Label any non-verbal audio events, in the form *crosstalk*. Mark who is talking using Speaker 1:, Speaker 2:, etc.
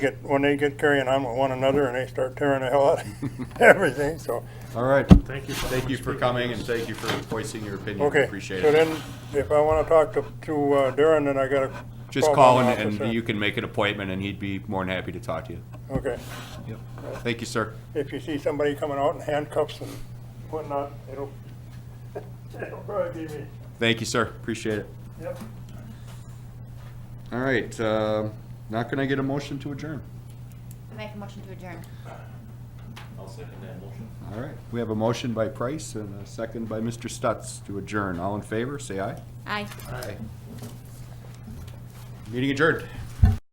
Speaker 1: get, when they get carrying on with one another and they start tearing the hell out of *laughs* everything, so,
Speaker 2: All right.
Speaker 3: Thank you.
Speaker 2: Thank you for
Speaker 3: much.
Speaker 2: coming and thank you for voicing your opinion.
Speaker 1: okay.
Speaker 2: Appreciate
Speaker 1: So
Speaker 2: it.
Speaker 1: then, if I wanna talk to, to uh, Darren, then I gotta.
Speaker 2: Just
Speaker 1: my
Speaker 2: call and,
Speaker 1: officer.
Speaker 2: and you can make an appointment and he'd be more than happy to talk to you.
Speaker 1: Okay,
Speaker 2: Yep. Thank you, sir.
Speaker 1: if you see somebody coming out in handcuffs and whatnot, it'll, *laughs* it'll probably be me,
Speaker 2: Thank you, sir. Appreciate it.
Speaker 1: yep.
Speaker 2: All right, uh, not gonna get a motion to adjourn.
Speaker 4: I Make a motion to adjourn.
Speaker 5: I'll second that motion.
Speaker 2: All right, we have a motion by Price and a second by Mr. Stutz to adjourn. All in favor, say aye.
Speaker 4: Aye.
Speaker 2: Aye. Meeting adjourned.